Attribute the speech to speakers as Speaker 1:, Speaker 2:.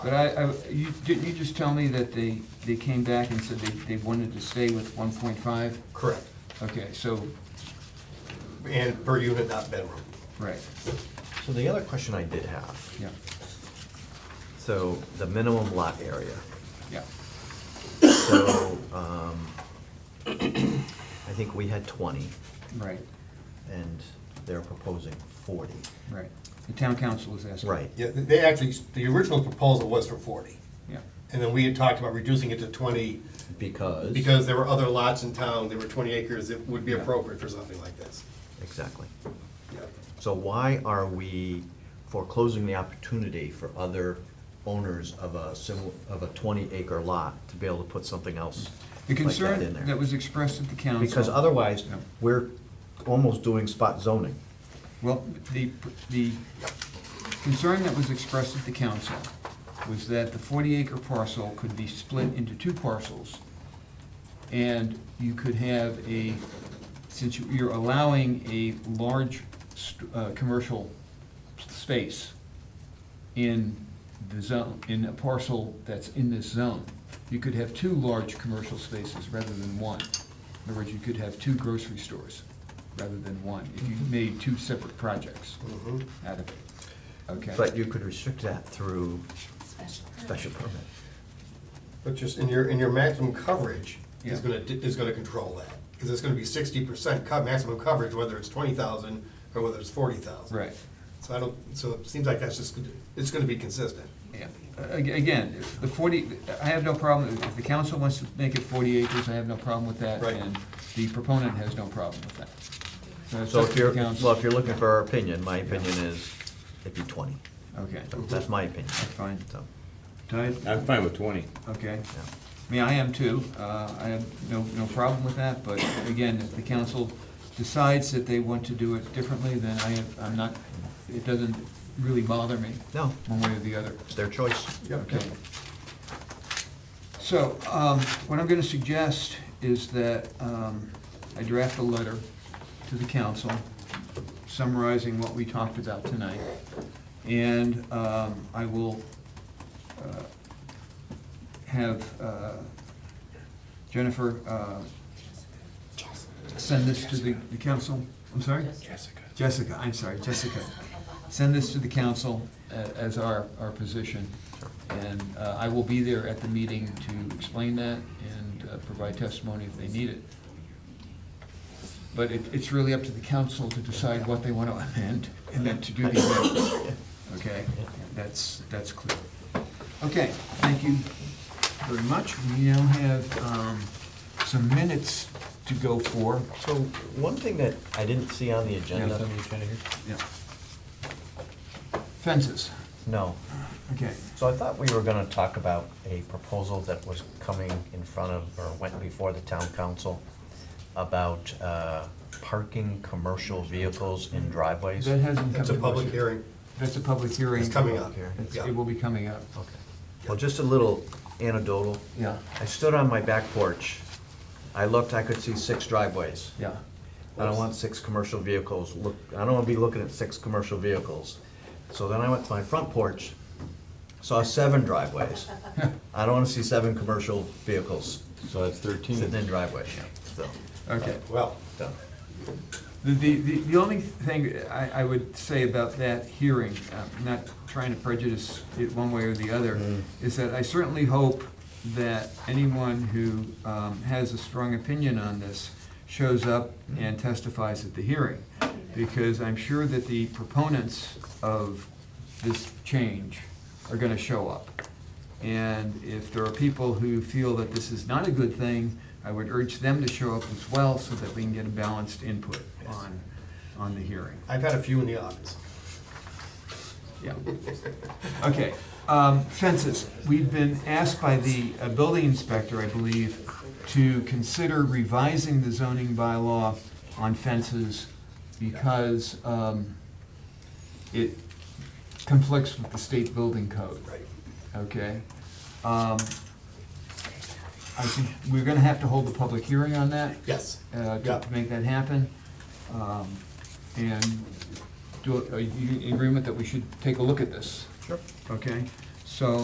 Speaker 1: But I, I, you, didn't you just tell me that they, they came back and said they, they wanted to stay with one point five?
Speaker 2: Correct.
Speaker 1: Okay, so,
Speaker 2: And per unit, not bedroom.
Speaker 1: right,
Speaker 3: So the other question I did have,
Speaker 1: yeah,
Speaker 3: so the minimum lot area,
Speaker 1: yeah,
Speaker 3: so, um, I think we had twenty,
Speaker 1: right,
Speaker 3: and they're proposing forty.
Speaker 1: right. The town council is asking.
Speaker 3: Right,
Speaker 2: Yeah, they actually, the original proposal was for forty.
Speaker 1: Yeah,
Speaker 2: And then we had talked about reducing it to twenty
Speaker 3: because.
Speaker 2: because there were other lots in town, there were twenty acres that would be appropriate for something like this.
Speaker 3: Exactly.
Speaker 2: Yeah.
Speaker 3: So why are we foreclosing the opportunity for other owners of a similar, of a twenty acre lot to be able to put something else
Speaker 1: the
Speaker 3: like that in
Speaker 1: concern that
Speaker 3: there?
Speaker 1: was expressed at the council.
Speaker 3: Because otherwise,
Speaker 1: Yeah.
Speaker 3: we're almost doing spot zoning.
Speaker 1: Well, the, the concern that was expressed at the council was that the forty acre parcel could be split into two parcels. And you could have a, since you- you're allowing a large, st- uh, commercial space in the zone, in a parcel that's in this zone, you could have two large commercial spaces rather than one. In other words, you could have two grocery stores rather than one, if you made two separate projects
Speaker 2: Mhm.
Speaker 1: out of it. Okay?
Speaker 3: But you could restrict that through
Speaker 4: Special.
Speaker 3: special permit.
Speaker 2: But just, in your, in your maximum coverage is
Speaker 1: Yeah.
Speaker 2: gonna, di- is gonna control that. Because it's gonna be sixty percent cut, maximum coverage, whether it's twenty thousand or whether it's forty thousand.
Speaker 1: Right.
Speaker 2: So I don't, so it seems like that's just, gonna- it's gonna be consistent.
Speaker 1: Yeah. A- Again, the forty, I have no problem, if the council wants to make it forty acres, I have no problem with that.
Speaker 2: Right.
Speaker 1: And the proponent has no problem with that. it's
Speaker 3: So
Speaker 1: up
Speaker 3: if
Speaker 1: to
Speaker 3: you're,
Speaker 1: the council.
Speaker 3: well, if you're looking for our opinion, my opinion is it'd be twenty.
Speaker 1: Okay,
Speaker 3: So That's my opinion.
Speaker 1: Mhm. fine.
Speaker 3: So,
Speaker 1: Tied?
Speaker 5: I'm fine with twenty.
Speaker 1: Okay.
Speaker 3: yeah.
Speaker 1: I mean, I am too. Uh, I have no, no problem with that, but again, if the council decides that they want to do it differently, then I have, I'm not, it doesn't really bother me.
Speaker 3: No.
Speaker 1: One way or the other.
Speaker 3: It's their choice.
Speaker 1: Okay. So, um, what I'm gonna suggest is that, um, I draft a letter to the council summarizing what we talked about tonight. And, um, I will, uh, have, uh, Jennifer, uh, send this to the, the council. I'm sorry?
Speaker 5: Jessica.
Speaker 1: Jessica, I'm sorry, Jessica. Send this to the council a- as our, our position. And uh, I will be there at the meeting to explain that and uh, provide testimony if they need it. But it, it's really up to the council to decide what they want to amend and then to do the amendment. Okay? That's, that's clear. Okay, thank you very much. We now have um, some minutes to go for.
Speaker 3: So one thing that I didn't see on the
Speaker 1: Yeah,
Speaker 3: agenda,
Speaker 1: something Yeah. Fences,
Speaker 3: no.
Speaker 1: okay.
Speaker 3: So I thought we were gonna talk about a proposal that was coming in front of, or went before the town council about uh, parking commercial vehicles in driveways.
Speaker 1: That hasn't come
Speaker 2: It's a
Speaker 1: to
Speaker 2: public
Speaker 1: us.
Speaker 2: hearing.
Speaker 1: That's a public hearing.
Speaker 2: It's coming up.
Speaker 3: Here.
Speaker 1: It's-
Speaker 2: Yeah.
Speaker 1: It will be coming up.
Speaker 3: Okay. Well, just a little anecdotal.
Speaker 1: Yeah,
Speaker 3: I stood on my back porch. I looked, I could see six driveways.
Speaker 1: yeah.
Speaker 3: I don't want six commercial vehicles, look, I don't wanna be looking at six commercial vehicles. So then I went to my front porch, saw seven driveways. I don't wanna see seven commercial vehicles
Speaker 5: So that's thirteen.
Speaker 3: sitting in driveways, so,
Speaker 1: Okay.
Speaker 2: Well,
Speaker 3: so.
Speaker 1: The, the, the the only thing I, I would say about that hearing, i not trying to prejudice it one way or the other, is that I certainly hope that anyone who um, has a strong opinion on this shows up and testifies at the hearing. Because I'm sure that the proponents of this change are gonna show up. And if there are people who feel that this is not a good thing, I would urge them to show up as well so that we can get a balanced input on, on the hearing.
Speaker 2: I've had a few in the office.
Speaker 1: Yeah. Okay, um, fences. We've been asked by the uh, building inspector, I believe, to consider revising the zoning bylaw on fences because um, it conflicts with the state building code.
Speaker 2: Right.
Speaker 1: Okay. Um, I think we're gonna have to hold the public hearing on that,
Speaker 2: Yes.
Speaker 1: uh, to-
Speaker 2: Yeah.
Speaker 1: to make that happen. Um, And do, are you in agreement that we should take a look at this?
Speaker 3: Sure.
Speaker 1: Okay, so